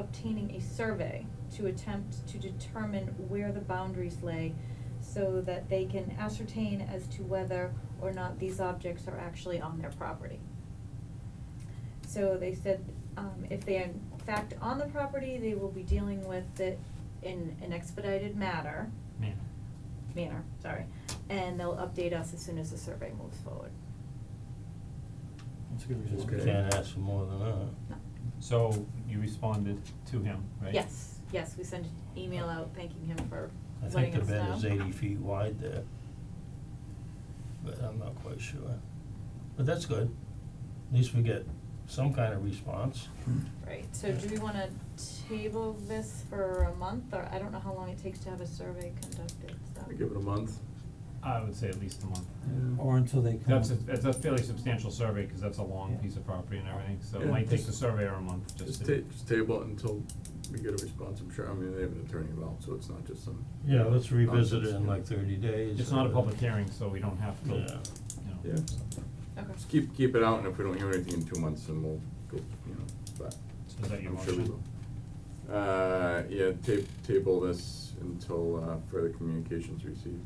obtaining a survey to attempt to determine where the boundaries lay so that they can ascertain as to whether or not these objects are actually on their property. So they said, um, if they are in fact on the property, they will be dealing with it in an expedited matter, Man. manner, sorry, and they'll update us as soon as the survey moves forward. That's a good That's result. good. Can't ask for more than that. No. So you responded to him, right? Yes, yes, we sent an email out thanking him for I think letting the us know. bed is eighty feet wide there. But I'm not quite sure. But that's good. At least we get some kind of response. Right, so do we wanna table this for a month, or I don't know how long it takes to have a survey conducted, so. I give it a month. I would say at least a month. Yeah. Or until they come. That's a, that's a fairly substantial survey, cause that's a long Yeah. piece of property and everything, so it Yeah. might take Just- the surveyor a month just Just to. ta- just table it until we get a response, I'm sure, I mean, they have an attorney involved, so it's not just some. Yeah, let's revisit it in like nonsense, thirty days. It's not a or- public hearing, so we don't have to, you Yeah. know. Yeah, Yeah. Okay. just keep, keep it out, and if we don't hear anything in two months, then we'll go, you know, but. So is that your I'm sure we motion? will. Uh, yeah, ta- table this until, uh, further communications received.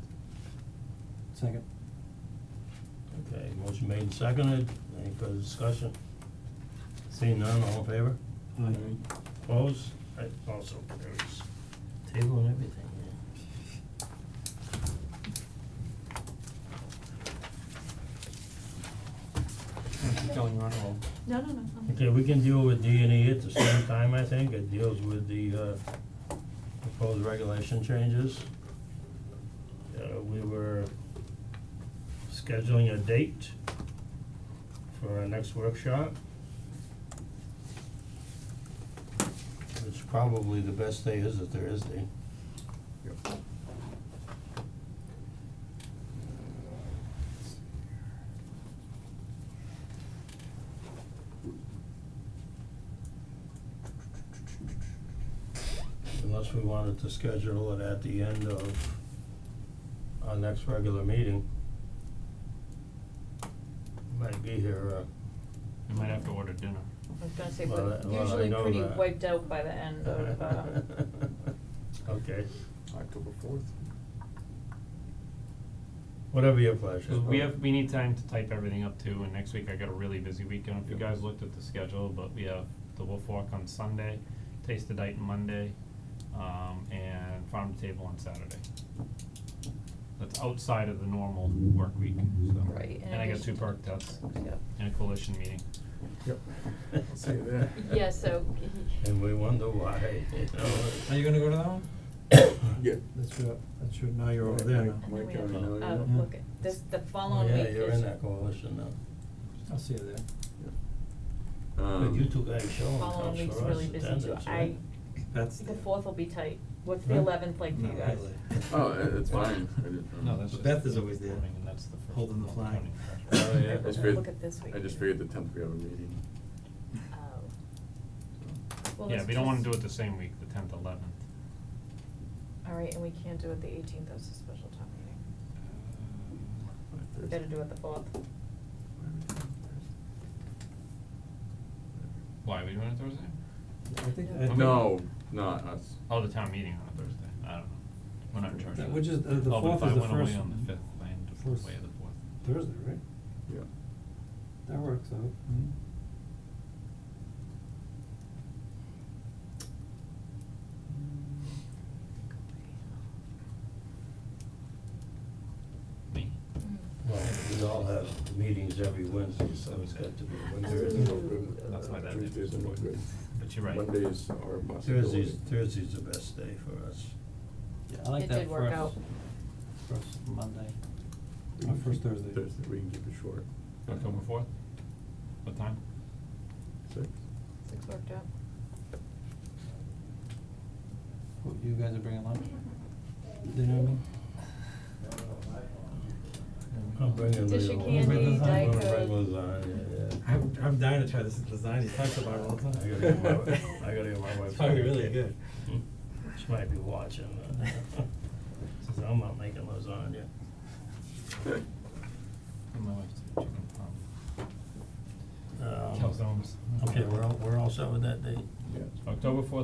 Second. Okay, motion made and seconded. Any further discussion? Seeing none, all in favor? Aye. Opposed? Right, also carries. Table and everything, yeah. Keep going, you're on a roll. No, no, no, I'm- Okay, we can deal with D and E at the same time, I think. It deals with the uh proposed regulation changes. Uh we were scheduling a date for our next workshop. It's probably the best day is a Thursday. Yep. Unless we wanted to schedule it at the end of our next regular meeting. Might be here, uh, You might have to order dinner. I was gonna say, Well, but I- well, I usually know pretty that. wiped out by the end of, uh, Okay, October fourth. whatever your pleasure. 'Cause we have, we need time to type everything up too, and next week I got a really busy week, I don't know if you guys looked at the schedule, but we have the Wolf Walk on Sunday, Taste the Dayton Monday, um, and Farm to Table on Saturday. That's outside of the normal work week, so. Right, in And I got two addition to- perk tests yeah. and a coalition meeting. Yep. See you there. Yeah, so. And we wonder why, you know. Are you gonna go to that one? Yeah. That's your, that's your, now you're over Mike, there Mike, And now. then we Mike, have, I know you. uh, Yeah. look, at this, the following week Yeah, you're is- in that coalition now. I'll see you there. But Um, you two guys showing Following comes week's for us really busy attendance, too. right? I, That's. the fourth will be tight. What's the Huh? eleventh like for you Not guys? really. Oh, uh, it's fine, I didn't know. No, that's just. But Beth is always there, morning, and that's the first holding the one, flag. counting pressure. Oh, yeah, I Look just figured, at this week. I just figured the tenth we have a meeting. Uh, Oh. Well, Yeah, let's we don't wanna just- do it the same week, the tenth, eleventh. All right, and we can't do it the eighteenth, that's a special town meeting. Uh, We gotta do it the fourth. Why, are we doing it Thursday? I think, I Yeah. think. Uh, No, not us. Oh, the town meeting on a Thursday, I don't know, we're not in charge of That- that. which is- uh, the Oh, but fourth is the if I went first- away on the fifth, I ended up first- away on the fourth. Thursday, right? Yeah. That works out. Hmm? Me? Mm. Mm-hmm. Well, we all have meetings every Wednesday, so it's got to be Thursdays are no Wednesday. good. That's why that Tuesdays are didn't no work. good. But you're right. Mondays are a possibility. Thursday's, Thursday's the best day for us. Yeah, I like It that did work first, out. first Monday, We or can first keep- Thursday. Uh, Thursday, we can keep it short. October fourth? What time? Six? Six worked out. Who- You guys are bringing lunch? Dinner, I mean? I'm bringing Dish of little- candy, I'm Diet gonna bring Coke. lasagna, yeah. I'm, I'm dying to try this lasagna, it talks about it all the time. I gotta get my, wi- I gotta get my It's wife. Mm-hmm. Hmm? probably to make really it. good. She might be watching, uh, says, I'm not making lasagna. And my wife's doing chicken parm. Um, Calzones. Okay, we're Um, all, we're all set with that date? Yeah. October fourth